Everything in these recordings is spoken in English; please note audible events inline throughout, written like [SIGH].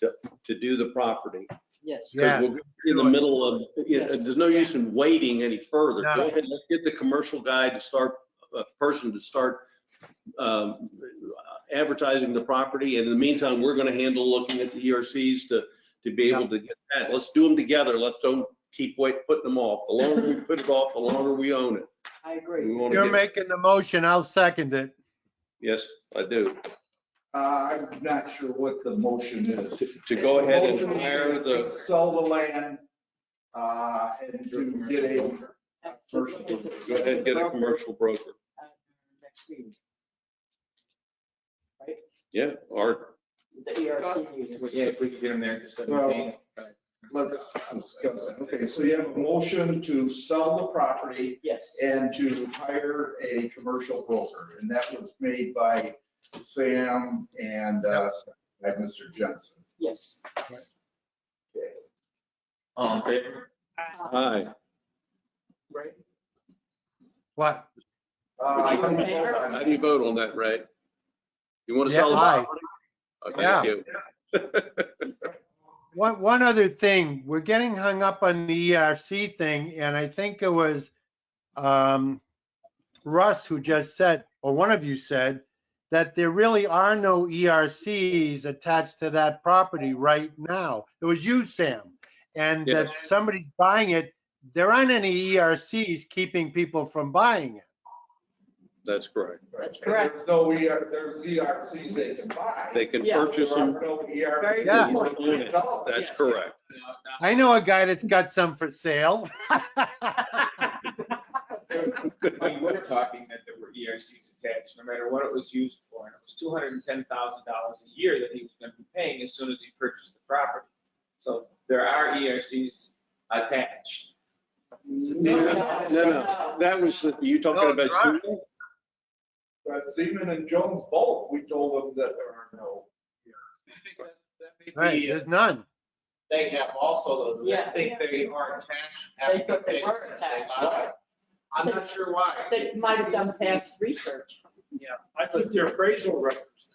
to, to do the property. Yes. Because Yeah. we're gonna be in the do it. middle of, yeah, Yes. there's no use in waiting any further. No. Go ahead, let's get the commercial guy to start, a person to start um, advertising the property. And in the meantime, we're going to handle looking at the ERCs to, to be able to get that. Let's do them together. Let's don't keep wait, putting them off. The longer we [LAUGHS] put it off, the longer we own it. I We agree. wanna You're get- making the motion, I'll second it. Yes, I do. Uh, I'm not sure what the motion is. To- To go ahead and Motion hire the, Sell the land, uh, and to get a, First, Look at the- go ahead and get a commercial broker. at Next meeting, Yeah, or the ERC meeting. Yeah, if we could get them there to well, seventeen. let's discuss that. Okay, so you have a motion to sell the property Yes, and to hire a commercial broker, and that was made by Sam and, uh, by Mr. Jensen. yes. All in favor? hi. Uh, Right. What? Uh, How do you vote on that, Ray? You want to Yeah, sell the aye. property? Okay, thank you. One, one other thing, we're getting hung up on the ERC thing, and I think it was um, Russ who just said, or one of you said, that there really are no ERCs attached to that property right now. It was you, Sam. And Yeah. that somebody's buying it, there aren't any ERCs keeping people from buying it. [LAUGHS] That's correct. That's correct. There's no, ER there's ERCs they can buy. They can Yeah. purchase There them. are no E Very ERCs. Yeah. that can sell. That's Yes. correct. [LAUGHS] I know a guy that's got some for sale. We were talking that there were ERCs attached, no matter what it was used for, and it was two hundred and ten thousand dollars a year that he was gonna be paying as soon as he purchased the property. So there are ERCs attached. No, no, that was, the- you talking No, about, there aren't. Siemens? But Zeman and Jones both, we told them that there are no. Right, uh, there's none. They have also those, Yeah. I think they are attached. They thought they applications were that they attached. buy. I'm not sure why. They might have done past research. I put their appraisal records.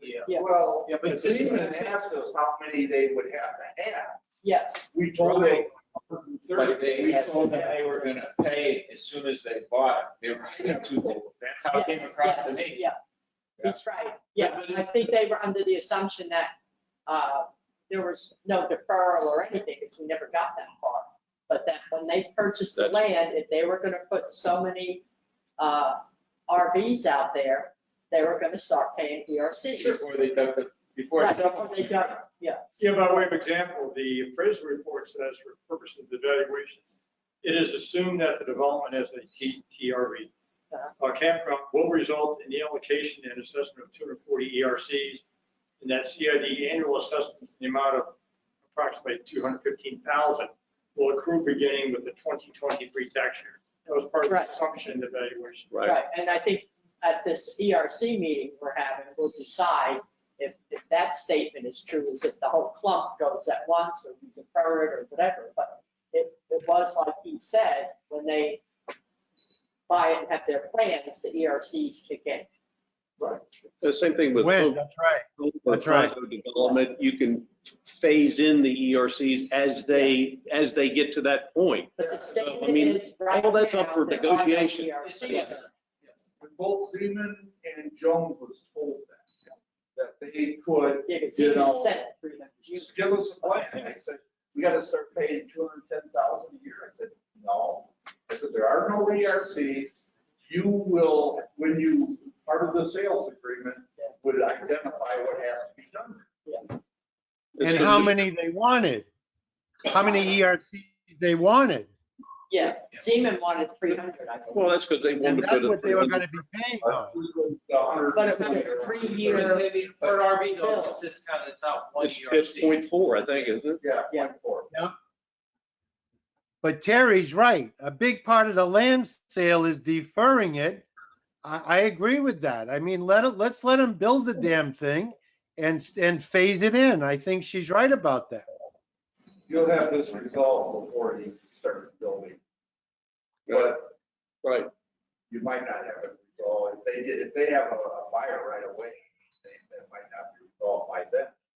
Yeah. Yeah. Well, Yeah, but- Zeman asked us how many they would have to have. Yes, We told them. Right. But they We had told told them them. they were gonna pay it as soon as they bought it. They were paying it to them. That's how it came yes, across to yes, me. yeah. That's right. Yeah, I think they were under the assumption that uh, there was no deferral or anything because we never got that far. But that when they purchased the That's- land, if they were going to put so many uh, RVs out there, they were going to start paying ERCs. Before they got the, before. Right, before they got, yeah, Yeah, by way of example, the appraisal report says for purposes of evaluations, it is assumed that the development has a T- TRE. Uh-huh. A campground will result in the allocation and assessment of 240 ERCs, and that CID annual assessments in the amount of approximately 215,000 will accrue beginning with the 2023 tax year. That was part of Right. the assumption evaluation. Right, right. And I think at this ERC meeting we're having, we'll decide if if that statement is true, is if the whole clump goes at once or we defer it or whatever. But it, it was like he said, when they buy it and have their plans, the ERCs kick in. the same thing with. When, Hope- that's right. Hope that's right. Plateau Development, you can phase in the ERCs as they, as they get to that point. But the So, I statement mean, is right now. E all that's up for there are no negotiation. ERCs. And Both Zeman and Jones was told that, that they could Yeah, 'cause You he know, said it through them. just give us a plan. I said, we gotta start paying two hundred and ten thousand a year. I said, no. I said, there are no ERCs. You will, when you, part of the sales agreement would identify what has to be done. It's And gonna how be- many they wanted, how many ERCs they wanted. Yeah, Zeman wanted 300, I think. Well, that's because they wanted And to put that's what they were it, gonna be paying on. But it was a For three-year, an RV though, it's discounted, it's not one it's, E ERC. it's point four, I think, isn't it? Yeah, Yeah. point four. But Terry's right. A big part of the land sale is deferring it. I, I agree with that. I mean, let it, let's let them build the damn thing and, s- and phase it in. I think she's right about that. You'll have this resolved before he starts building. But Right, you might not have it resolved. If they, did- if they have a buyer right away, they- that might not be resolved by then.